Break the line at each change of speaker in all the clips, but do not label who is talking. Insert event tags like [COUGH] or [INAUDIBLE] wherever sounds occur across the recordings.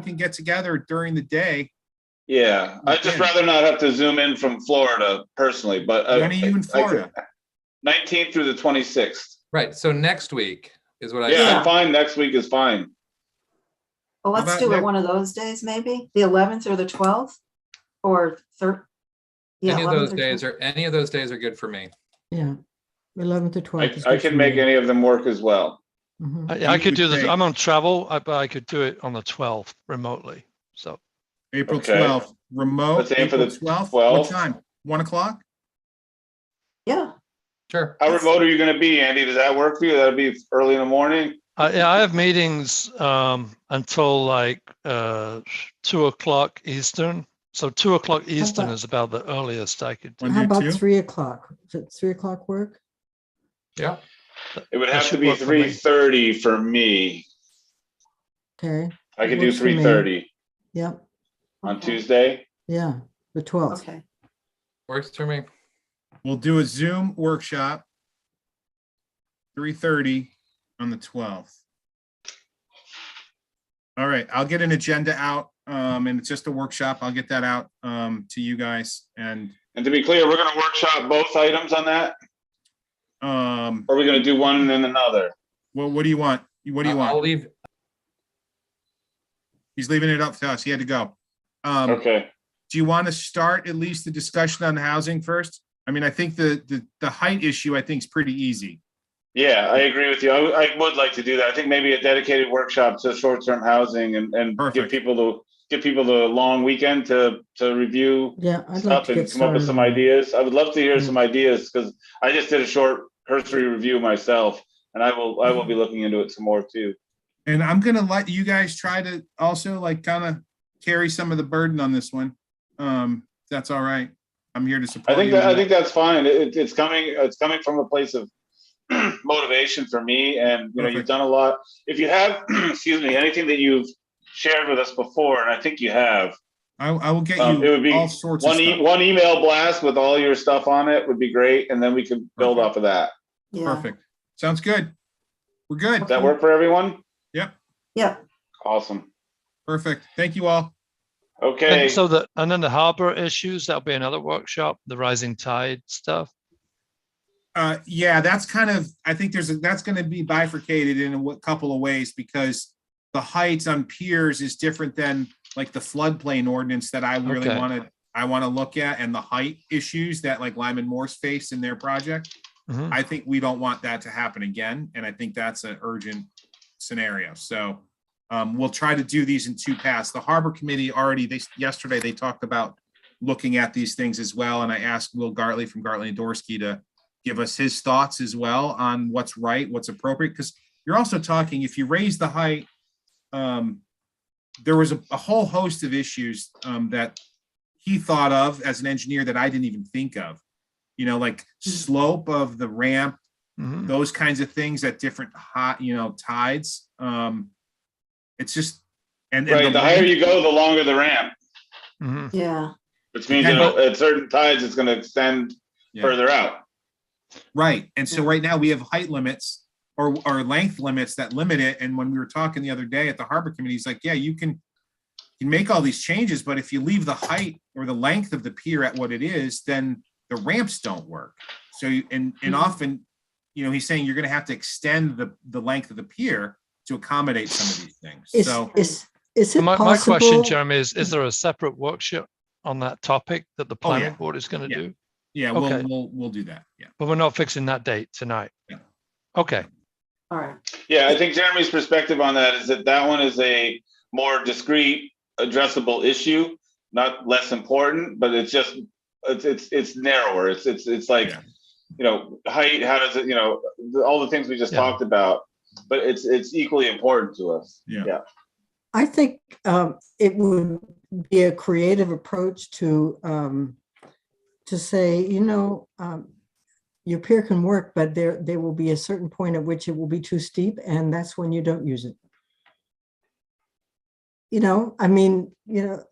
can get together during the day.
Yeah, I'd just
Yeah.
rather not have to zoom in from Florida personally, but. uh,
When are you in Florida?
Nineteenth through the twenty-sixth.
Right, so next week is what I.
Yeah,
said.
I'm fine. Next week is fine.
Well,
How
let's
about
do it
next-
one of those days, maybe, the eleventh or the twelfth, or third.
Any of those days are, any of those days are good for me.
Yeah, eleven to twelve.
I, I can make any of them work as well.
Mm-hmm.
I,
You
Uh, I could
would
do this.
think.
I'm on travel, I- but I could do it on the 12th remotely. So
April
Okay.
twelfth, remote,
Let's aim for
April
the
twelfth, what
12th.
time? One o'clock?
Yeah,
Sure.
How
That's-
remote are you gonna be, Andy? Does that work for you? That'll be early in the morning?
I, yeah, I have meetings um, until like uh, two o'clock Eastern. So two o'clock Eastern
about-
is about the earliest I could. do.
Wanna
How
do
about
two?
three o'clock? Does it three o'clock work?
Yeah,
It would
That
have to
should
be
work for me.
three thirty for me.
Okay,
I could do
Works for me.
three thirty
yep,
on
Okay.
Tuesday.
yeah, the twelfth.
okay,
works for me.
We'll do a Zoom workshop. Three thirty on the twelfth. All right, I'll get an agenda out, um, and it's just a workshop. I'll get that out, um, to you guys and,
And to be clear, we're gonna workshop both items on that?
um,
Or are we gonna do one and then another?
what, what do you want? What do you
I- Uh, I'll
want?
leave,
He's leaving it up to us. He had to go. Um,
Okay,
do you want to start at least the discussion on housing first? I mean, I think the, the, the height issue, I think is pretty easy.
yeah, I agree with you. I, I would like to do that. I think maybe a dedicated workshop to short-term housing and, and give
Perfect.
people the, give people the long weekend to, to review
Yeah, I'd like
stuff
to
and
get
come up with
started.
some
on that.
ideas. I would love to hear
Mm.
some ideas because I just did a short cursory review myself and I will, I will be looking into it some more too.
And I'm gonna let you guys try to also like kind of carry some of the burden on this one. Um, if that's all right. I'm here to
I
support
think,
you.
that I
on
think
that.
that's fine. It, it's coming, it's coming from a place of [CLEARS THROAT] motivation for me and, you know, you've
Perfect.
done a lot. If you have, [CLEARS THROAT] excuse me, anything that you've shared with us before, and I think you have,
I, I will get
um, it would
you
be
all sorts of
one, e-
stuff.
one email blast with all your stuff on it would be great. And then we could build
Perfect.
off of that. e
yeah,
Perfect. Sounds good. We're good.
Does that work for everyone?
yeah,
Awesome.
Perfect. Thank you all.
Okay.
And so the and then the harbor issues that'll be another workshop. The rising tide stuff.
Uh, yeah, that's kind of, I think there's, a- that's gonna be bifurcated in a wa- couple of ways because the heights on piers is different than like the floodplain ordinance that I really
Okay.
wanna, I wanna look at and the height issues that like Lyman Morse faced in their project.
Mhm.
I think we don't want that to happen again, and I think that's an urgent scenario. So um, we'll try to do these in two paths. The Harbor Committee already, they, yesterday, they talked about looking at these things as well, and I asked Will Gartley from Gartley and Dorsey to give us his thoughts as well on what's right, what's appropriate, because you're also talking, if you raise the height, um, there was a, a whole host of issues um, that he thought of as an engineer that I didn't even think of. You know, like slope of the ramp,
Hmm.
Mhm.
those kinds of things at different hot, you know, tides. Um, it's just, and, and
Right, the higher
length-
you go, the longer the ramp,
Mhm.
yeah,
which means
Yeah,
it'll- at certain tides, it's gonna extend
Yeah.
further out.
Right, and so right now we have height limits or, or length limits that limit it, and when we were talking the other day at the harbor committee, he's like, yeah, you can. You can make all these changes, but if you leave the height or the length of the pier at what it is, then the ramps don't work. So, you- and,
Hmm.
and often, you know, he's saying you're gonna have to extend the, the length of the pier to accommodate some of these things, so.
Is, is, is it
My, my question,
possible?
Jeremy, is is there a separate workshop on that topic that the
Oh, yeah.
planning board is going to
Yeah.
do?
Yeah, we'll,
Okay.
we'll, we'll do that, yeah.
But we're not fixing that date tonight.
Yeah.
Okay.
all right,
Yeah, I think Jeremy's perspective on that is that that one is a more discrete, addressable issue, not less important, but it's just, it's, it's, it's narrower. It's, it's, it's like,
Yeah.
you know, height, how does it, you know, the- all the things we just
Yeah.
talked about, but it's, it's equally important to us.
Yeah.
I think um, it would be a creative approach to, um, to say, you know, um, your pier can work, but there, there will be a certain point at which it will be too steep, and that's when you don't use it. You know, I mean, you know,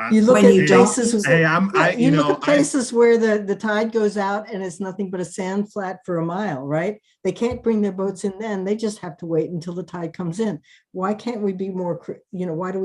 I-
You look
When you
at
don't-
places.
Hey, I'm,
Yeah,
Um, I, you
look
know,
at
I,
Places where the, the tide goes out and it's nothing but a sand flat for a mile, right? They can't bring their boats in then. They just have to wait until the tide comes in. Why can't we be more, cre- you know, why do we